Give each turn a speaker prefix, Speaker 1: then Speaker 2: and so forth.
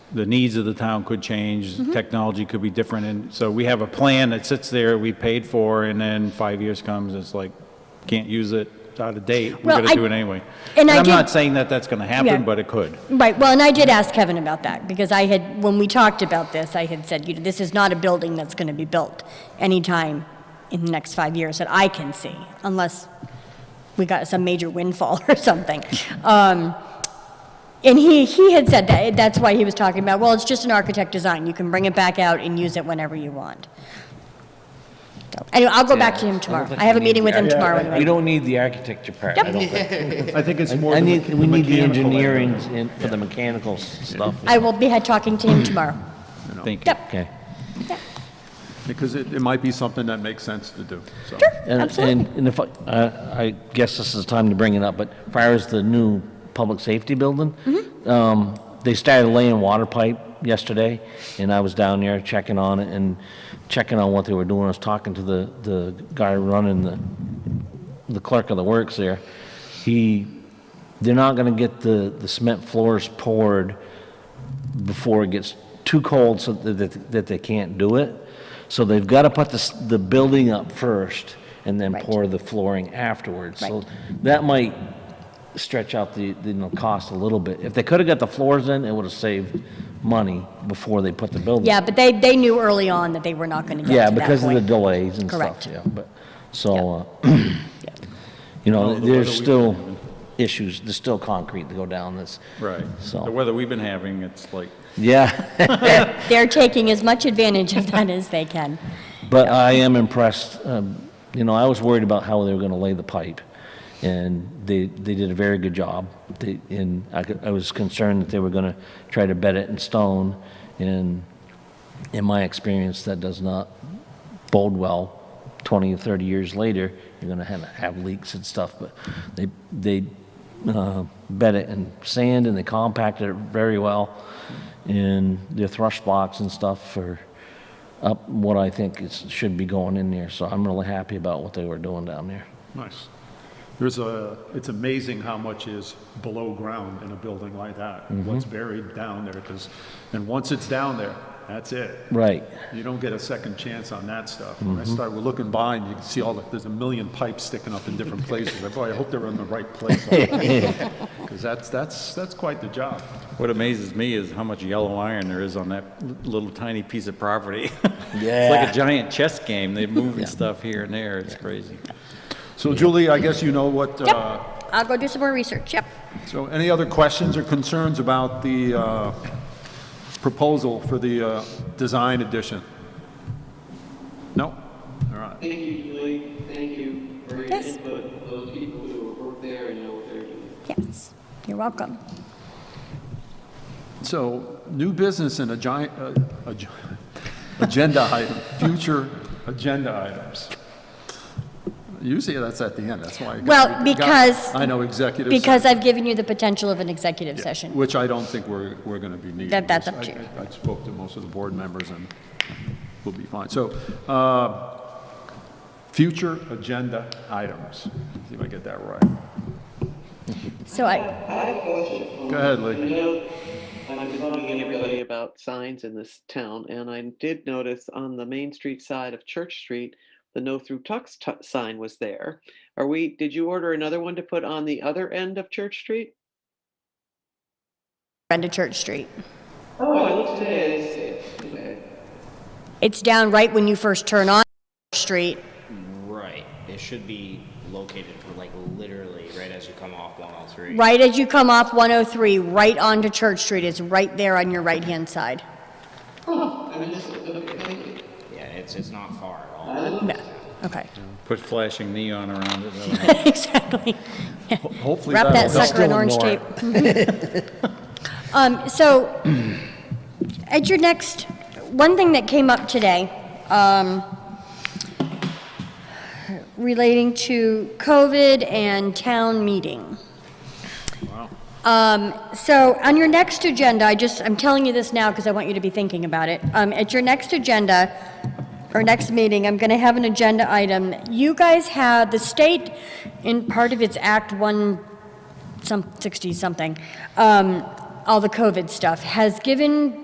Speaker 1: the needs of the town could change,
Speaker 2: Mm-hmm.
Speaker 1: technology could be different, and so we have a plan that sits there, we paid for, and then five years comes, it's like, can't use it, it's out of date, we're
Speaker 2: Well,
Speaker 1: gonna
Speaker 2: I-
Speaker 1: do it anyway.
Speaker 2: and I
Speaker 1: I'm
Speaker 2: did-
Speaker 1: not saying that that's gonna
Speaker 2: Yeah.
Speaker 1: happen, but it could.
Speaker 2: Right, well, and I did ask Kevin about that, because I had, when we talked about this, I had said, you know, this is not a building that's gonna be built anytime in the next five years that I can see, unless we got some major windfall or something. Um, and he, he had said that, that's why he was talking about, well, it's just an architect design, you can bring it back out and use it whenever you want. So, Anyway, I'll go back to him tomorrow, I have a meeting with him tomorrow anyway.
Speaker 3: We don't need the architecture part,
Speaker 2: Yep.
Speaker 3: I don't think.
Speaker 4: I think it's
Speaker 3: I
Speaker 4: more
Speaker 3: I
Speaker 4: the
Speaker 3: need,
Speaker 4: mecha-
Speaker 3: we need the
Speaker 4: mechanical end.
Speaker 3: engineering and- for the mechanical s- stuff.
Speaker 2: I will be had talking to him tomorrow.
Speaker 1: Thank you.
Speaker 2: Yep.
Speaker 3: Okay.
Speaker 4: Because it, it might be something that makes sense to do, so.
Speaker 3: And-
Speaker 2: Absolutely.
Speaker 3: And, and if, I- uh, I guess this is the time to bring it up, but as far as the new public safety building,
Speaker 2: Mm-hmm.
Speaker 3: um, they started laying water pipe yesterday, and I was down there checking on it and checking on what they were doing. I was talking to the, the guy running the, the clerk of the works there. He, they're not gonna get the, the cement floors poured before it gets too cold so that, that, that they can't do it. So they've got to put the, s- the building up first and then
Speaker 2: Right.
Speaker 3: pour the flooring afterwards. So
Speaker 2: Right.
Speaker 3: that might stretch out the, the, you know, cost a little bit. If they could have got the floors in, it would have saved money before they put the building.
Speaker 2: Yeah, but they, they knew early on that they were not going to
Speaker 3: Yeah,
Speaker 2: get to that
Speaker 3: because of the
Speaker 2: point.
Speaker 3: delays and stuff,
Speaker 2: Correct.
Speaker 3: yeah, but, so, uh, you know, there's still issues, there's still concrete to go down this.
Speaker 1: Right.
Speaker 3: So-
Speaker 1: The weather we've been having, it's like,
Speaker 3: Yeah.
Speaker 2: They're taking as much advantage of that as they can.
Speaker 3: But I am impressed, um, you know, I was worried about how they were gonna lay the pipe, and they, they did a very good job. They, and I, could- I was concerned that they were gonna try to bed it in stone, and in my experience, that does not bode well. Twenty or thirty years later, you're gonna have, have leaks and stuff, but they, they, uh, bed it in sand, and they compacted it very well, and their thrush blocks and stuff for, up what I think is, should be going in there, so I'm really happy about what they were doing down there.
Speaker 4: Nice. There's a, it's amazing how much is below ground in a building like that,
Speaker 3: Mm-hmm.
Speaker 4: what's buried down there, because, and once it's down there, that's it.
Speaker 3: Right.
Speaker 4: You don't get a second chance on that stuff. When
Speaker 3: Mm-hmm.
Speaker 4: I start looking behind, you can see all the, there's a million pipes sticking up in different places. I- Boy, I hope they're in the right place. Because that's, that's, that's quite the job.
Speaker 1: what amazes me is how much yellow iron there is on that l- little tiny piece of property. It's like
Speaker 3: Yeah.
Speaker 1: a giant chess game, they're moving stuff here and there, it's crazy.
Speaker 4: So Julie, I guess you know what,
Speaker 2: Yep,
Speaker 4: uh,
Speaker 2: I'll go do some more research, yep.
Speaker 4: So any other questions or concerns about the uh, proposal for the uh, design edition? No? All right.
Speaker 5: Thank you, Julie. Thank you for your
Speaker 2: Yes.
Speaker 5: input. Those people who work there and know what they're doing.
Speaker 2: Yes, you're welcome.
Speaker 4: So new business and a giant, uh, a gi- agenda item, future agenda items. Usually that's at the end, that's why. I got-
Speaker 2: Well,
Speaker 4: got-
Speaker 2: because-
Speaker 4: I know executive.
Speaker 2: Because I've given you the potential of an executive
Speaker 4: Yeah,
Speaker 2: session.
Speaker 4: Which I don't think we're, we're going to be needing.
Speaker 2: That- that's up
Speaker 4: I-
Speaker 2: to you.
Speaker 4: I I spoke to most of the board members, and we'll be fine. So, uh, future agenda items. See if I get that right.
Speaker 2: So I,
Speaker 5: I have a question.
Speaker 4: Go ahead,
Speaker 5: I
Speaker 4: Lee.
Speaker 5: know I'm talking everybody about signs in this town, and I did notice on the Main Street side of Church Street, the no through tux tu- sign was there. Are we, did you order another one to put on the other end of Church Street?
Speaker 2: Brenda Church Street.
Speaker 5: Oh, I looked today, I didn't see it today.
Speaker 2: It's down right when you first turn on Church Street.
Speaker 6: Right. It should be located like literally right as you come off 103.
Speaker 2: Right as you come off 103, right onto Church Street, it's right there on your right-hand side.
Speaker 5: I mean, this is- okay, thank you.
Speaker 6: Yeah, it's it's not far at all.
Speaker 2: No, okay.
Speaker 1: Put flashing neon around it, that'll
Speaker 2: Exactly.
Speaker 4: Hopefully
Speaker 2: Wrap that
Speaker 4: that'll help.
Speaker 2: sucker in orange tape. Um, so, at your next, one thing that came up today, um, relating to COVID and town meeting. Um, so on your next agenda, I just, I'm telling you this now because I want you to be thinking about it. Um, at your next agenda, or next meeting, I'm gonna have an agenda item. You guys have, the state, in part of its Act One some 60 something, um, all the COVID stuff, has given